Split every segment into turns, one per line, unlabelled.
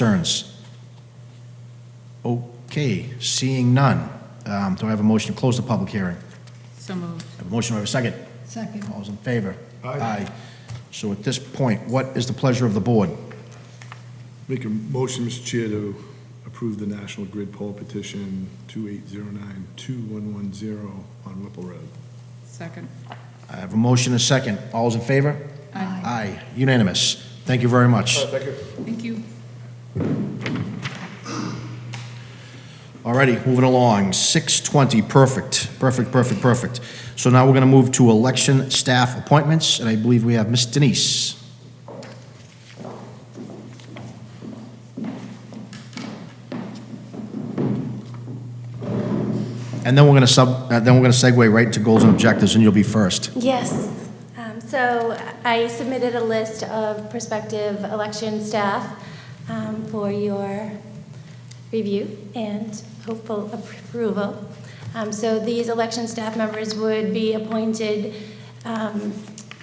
concerns? Okay, seeing none. Um, Do I have a motion to close the public hearing?
So moved.
I Have a motion, do I have a second?
Second.
All those in favor? Aye. So at this point, what is the pleasure of the board?
Make a motion, Mr. Chair, to approve the National Grid poll petition 2809-2110 on Whipple Road.
Second.
I have a motion, and a second. All those in favor?
Aye.
Aye, unanimous. Thank you very much.
Thank you.
Alrighty, moving along, 620, perfect, perfect, perfect, perfect. So now we're going to move to election staff appointments, and I believe we have Miss Denise. And then we're going to sub, uh, then we're going to segue right to goals and objectives, and you'll be first.
Yes. Um, So I submitted a list of prospective election staff um, for your review and hopeful approval. Um, So these election staff members would be appointed um,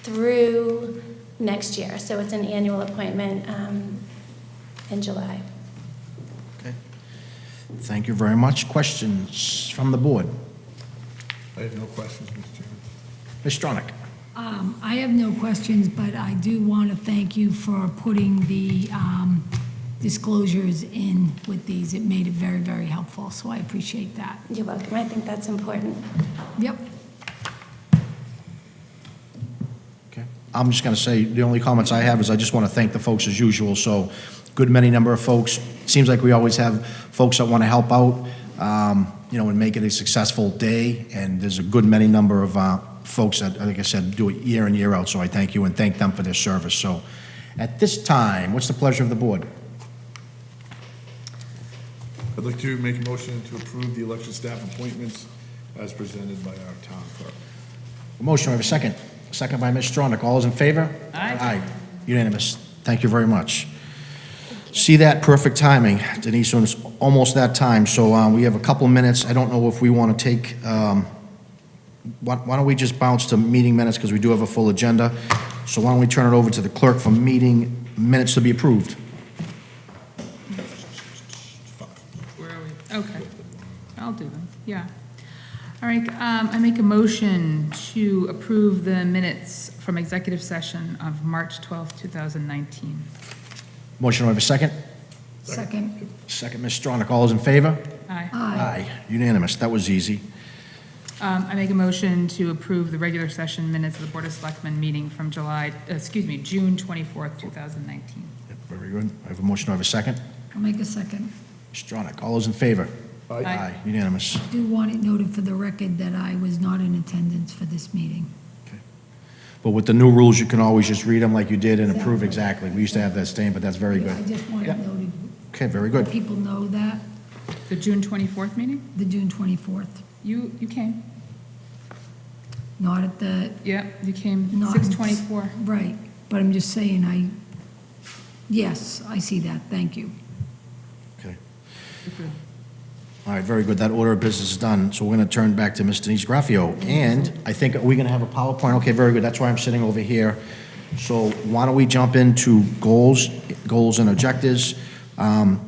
through next year. So it's an annual appointment um, in July.
Thank you very much. Questions from the board?
I have no questions, Mr. Chairman.
Ms. Stronach?
Um, I have no questions, but I do want to thank you for putting the um, disclosures in with these. It made it very, very helpful, so I appreciate that.
You're welcome. I think that's important.
Yep.
Okay. I'm just going to say, the only comments I have is I just want to thank the folks as usual, so good many number of folks. Seems like we always have folks that want to help out, um, you know, and make it a successful day, and there's a good many number of uh, folks that, like I said, do it year in, year out, so I thank you and thank them for their service. So at this time, what's the pleasure of the board?
I'd like to make a motion to approve the election staff appointments as presented by our town clerk.
A Motion, we have a second. Second by Ms. Stronach. All those in favor?
Aye.
Unanimous. Thank you very much. See that, perfect timing. Denise, it's almost that time, so uh, we have a couple minutes. I don't know if we want to take, um, why why don't we just bounce to meeting minutes, because we do have a full agenda. So why don't we turn it over to the clerk for meeting minutes to be approved?
Where are we? Okay. I'll do them. Yeah. All right, um, I make a motion to approve the minutes from executive session of March 12th, 2019.
Motion, we have a second.
Second.
Second, Ms. Stronach. All those in favor?
Aye.
Aye.
Unanimous. That was easy.
Um, I make a motion to approve the regular session minutes of the Board of Selectmen meeting from July, uh, excuse me, June 24th, 2019.
Very good. I have a motion, I have a second.
I'll make a second.
Stronach, all those in favor?
Aye.
Unanimous.
Do want it noted for the record that I was not in attendance for this meeting.
But with the new rules, you can always just read them like you did and approve exactly. We used to have that stain, but that's very
I
good.
just want
Yeah.
it noted.
Okay, very good.
People know that,
The June 24th meeting?
the June 24th,
You, you came?
not at the,
Yeah, you came,
not.
6:24.
Right, but I'm just saying, I, yes, I see that, thank you.
Okay. All right, very good. That order of business is done. So we're going to turn back to Ms. Denise Graffio. And I think, are we going to have a PowerPoint? Okay, very good. That's why I'm sitting over here. So why don't we jump into goals, goals and objectives? Um,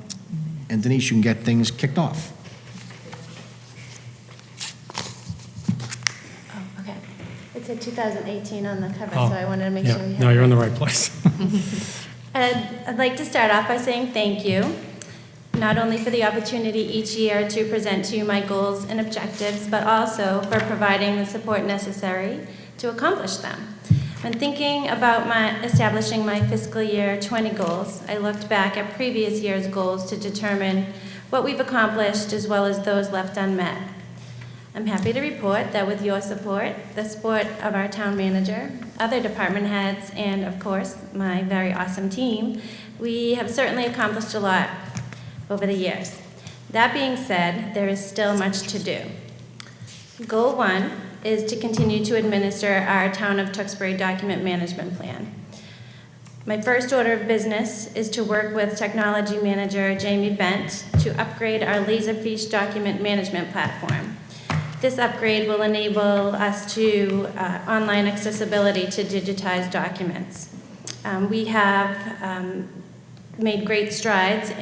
And Denise, you can get things kicked off.
Oh, okay. It said 2018 on the cover, so
Oh,
I wanted to make
yeah.
sure we had.
No, you're in the right place.
Um, I'd I'd like to start off by saying thank you, not only for the opportunity each year to present to you my goals and objectives, but also for providing the support necessary to accomplish them. When thinking about my, establishing my fiscal year 20 goals, I looked back at previous year's goals to determine what we've accomplished as well as those left unmet. I'm happy to report that with your support, the support of our town manager, other department heads, and of course, my very awesome team, we have certainly accomplished a lot over the years. That being said, there is still much to do. Goal one is to continue to administer our Town of Tewksbury Document Management Plan. My first order of business is to work with Technology Manager Jamie Bent to upgrade our Laserfish document management platform. This upgrade will enable us to uh, online accessibility to digitized documents. Um, We have um, made great strides